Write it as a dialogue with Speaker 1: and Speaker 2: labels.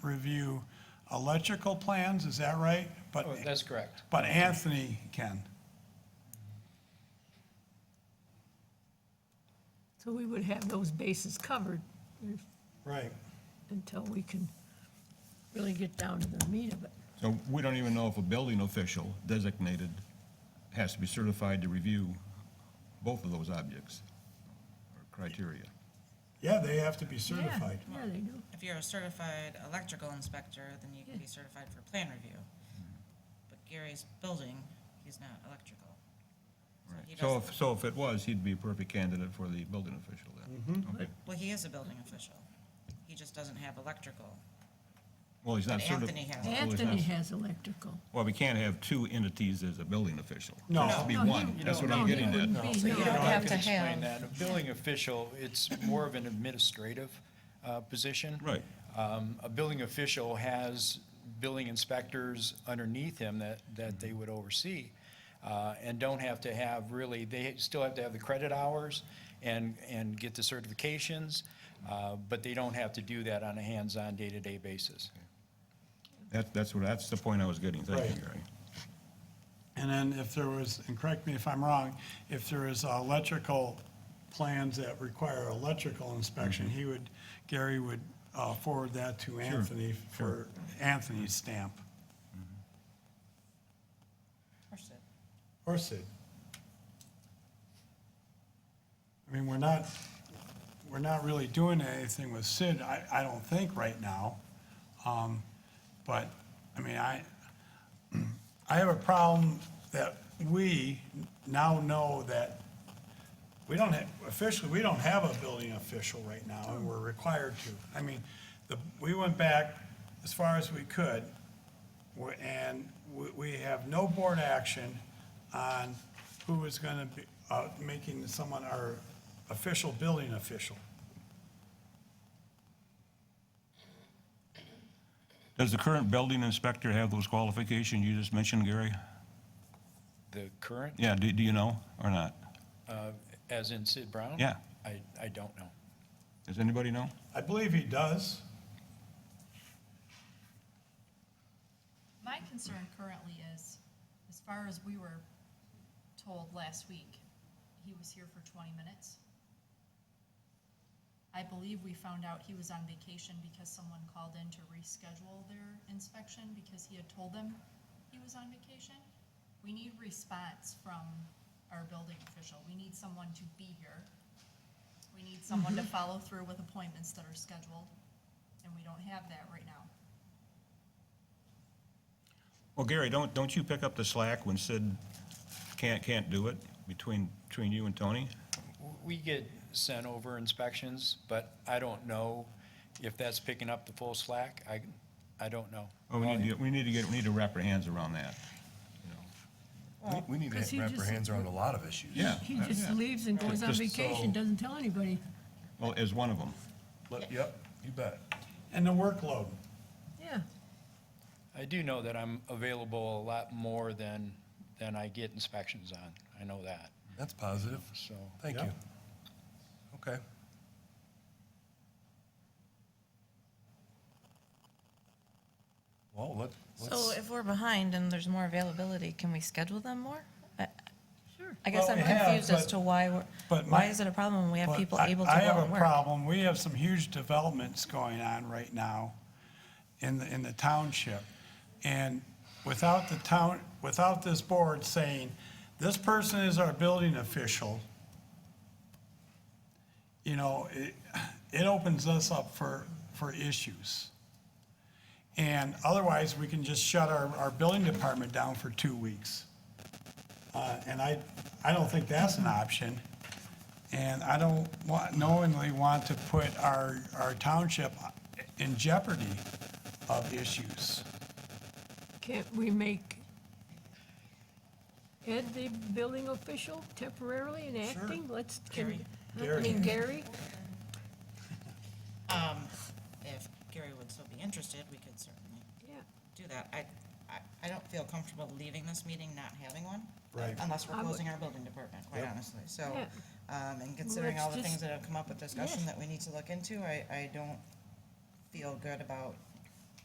Speaker 1: review electrical plans, is that right? But,
Speaker 2: Oh, That's correct.
Speaker 1: but Anthony can.
Speaker 3: So we would have those bases covered if-
Speaker 1: Right.
Speaker 3: until we can really get down to the meat of it.
Speaker 4: So we don't even know if a building official designated has to be certified to review both of those objects or criteria.
Speaker 1: Yeah, they have to be
Speaker 3: Yeah,
Speaker 1: certified.
Speaker 3: Yeah, they do.
Speaker 5: If you're a certified electrical inspector, then you can be certified for plan review. But Gary's building, he's not electrical. So he
Speaker 4: So
Speaker 5: doesn't,
Speaker 4: if, so if it was, he'd be a perfect candidate for the building official then.
Speaker 3: Mm-hmm.
Speaker 4: Okay.
Speaker 5: well, he is a building official. He just doesn't have electrical.
Speaker 4: Well, he's not
Speaker 5: But
Speaker 4: certified.
Speaker 5: Anthony has.
Speaker 3: Anthony has electrical.
Speaker 4: Well, we can't have two entities as a building official.
Speaker 1: No.
Speaker 4: It has to be
Speaker 3: No, he-
Speaker 4: one. That's what
Speaker 3: no,
Speaker 4: I'm
Speaker 3: he
Speaker 4: getting at.
Speaker 3: wouldn't
Speaker 2: No,
Speaker 3: be,
Speaker 2: so you
Speaker 3: no.
Speaker 2: don't
Speaker 6: have
Speaker 2: have
Speaker 6: to
Speaker 2: to
Speaker 6: have-
Speaker 2: explain that. A building official, it's more of an administrative uh, position.
Speaker 4: Right.
Speaker 2: Um, A building official has building inspectors underneath him that, that they would oversee uh, and don't have to have really, they still have to have the credit hours and, and get the certifications, uh, but they don't have to do that on a hands-on, day-to-day basis.
Speaker 4: That, that's what, that's the point I was getting. Thank you, Gary.
Speaker 1: And then if there was, and correct me if I'm wrong, if there is electrical plans that require electrical inspection,
Speaker 2: Mm-hmm.
Speaker 1: he would, Gary would uh, forward that to Anthony for Anthony's stamp.
Speaker 5: Of course it-
Speaker 1: Or Sid. I mean, we're not, we're not really doing anything with Sid, I, I don't think right now. Um, But, I mean, I, I have a problem that we now know that we don't have, officially, we don't have a building official right now, and we're required to. I mean, the, we went back as far as we could, we- and we, we have no board action on who is gonna be, uh, making someone our official building official.
Speaker 4: Does the current building inspector have those qualifications you just mentioned, Gary?
Speaker 2: The current,
Speaker 4: Yeah, do, do you know or not?
Speaker 2: uh, as in Sid Brown?
Speaker 4: Yeah.
Speaker 2: I, I don't know.
Speaker 4: Does anybody know?
Speaker 1: I believe he does.
Speaker 7: My concern currently is, as far as we were told last week, he was here for twenty minutes. I believe we found out he was on vacation because someone called in to reschedule their inspection because he had told them he was on vacation. We need response from our building official. We need someone to be here. We need someone to follow through with appointments that are scheduled, and we don't have that right now.
Speaker 4: Well, Gary, don't, don't you pick up the slack when Sid can't, can't do it between, between you and Tony?
Speaker 2: We get sent over inspections, but I don't know if that's picking up the full slack. I, I don't know.
Speaker 4: Oh, we need to, we need to get, we need to wrap our hands around that.
Speaker 8: We- We need
Speaker 3: Because
Speaker 8: to
Speaker 3: he
Speaker 8: wrap our
Speaker 3: just-
Speaker 8: hands around a lot of issues.
Speaker 4: Yeah.
Speaker 3: He just leaves and goes on
Speaker 4: Just
Speaker 3: vacation,
Speaker 8: so-
Speaker 3: doesn't tell anybody.
Speaker 4: Well, as one of them.
Speaker 8: Let- Yep, you bet.
Speaker 1: And the workload.
Speaker 3: Yeah,
Speaker 2: I do know that I'm available a lot more than, than I get inspections on. I know that,
Speaker 8: That's positive.
Speaker 2: so.
Speaker 8: Thank
Speaker 1: Yeah.
Speaker 8: you. Okay. Well, let,
Speaker 9: So
Speaker 8: let's,
Speaker 9: Oh, if we're behind and there's more availability, can we schedule them more? I-
Speaker 3: sure.
Speaker 9: I guess
Speaker 1: Well,
Speaker 9: I'm
Speaker 1: we have,
Speaker 9: confused as
Speaker 1: but-
Speaker 9: to why, we're-
Speaker 1: but my-
Speaker 9: why is it a problem when we have
Speaker 1: But
Speaker 9: people
Speaker 1: I-
Speaker 9: able to
Speaker 1: I
Speaker 9: go
Speaker 1: have
Speaker 9: and
Speaker 1: a
Speaker 9: work?
Speaker 1: problem. We have some huge developments going on right now in, the in the township. And without the town, without this board saying, this person is our building official, you know, it, it opens us up for, for issues. And otherwise, we can just shut our, our building department down for two weeks. Uh, And I, I don't think that's an option. And I don't wa- knowingly want to put our, our township in jeopardy of issues.
Speaker 3: Can't we make Ed the building official temporarily and
Speaker 1: Sure.
Speaker 3: acting? Let's, can, I
Speaker 1: Gary.
Speaker 3: mean, Gary?
Speaker 5: Um, if Gary would still be interested, we could certainly
Speaker 3: Yeah,
Speaker 5: do that. I, I, I don't feel comfortable leaving this meeting not having one.
Speaker 1: Right.
Speaker 5: Unless we're
Speaker 3: I would-
Speaker 5: closing our building department, quite honestly. So,
Speaker 3: Yeah.
Speaker 5: um, and considering
Speaker 3: let's
Speaker 5: all the
Speaker 3: just-
Speaker 5: things that have come up with discussion
Speaker 3: Yes.
Speaker 5: that we need to look into, I, I don't feel good about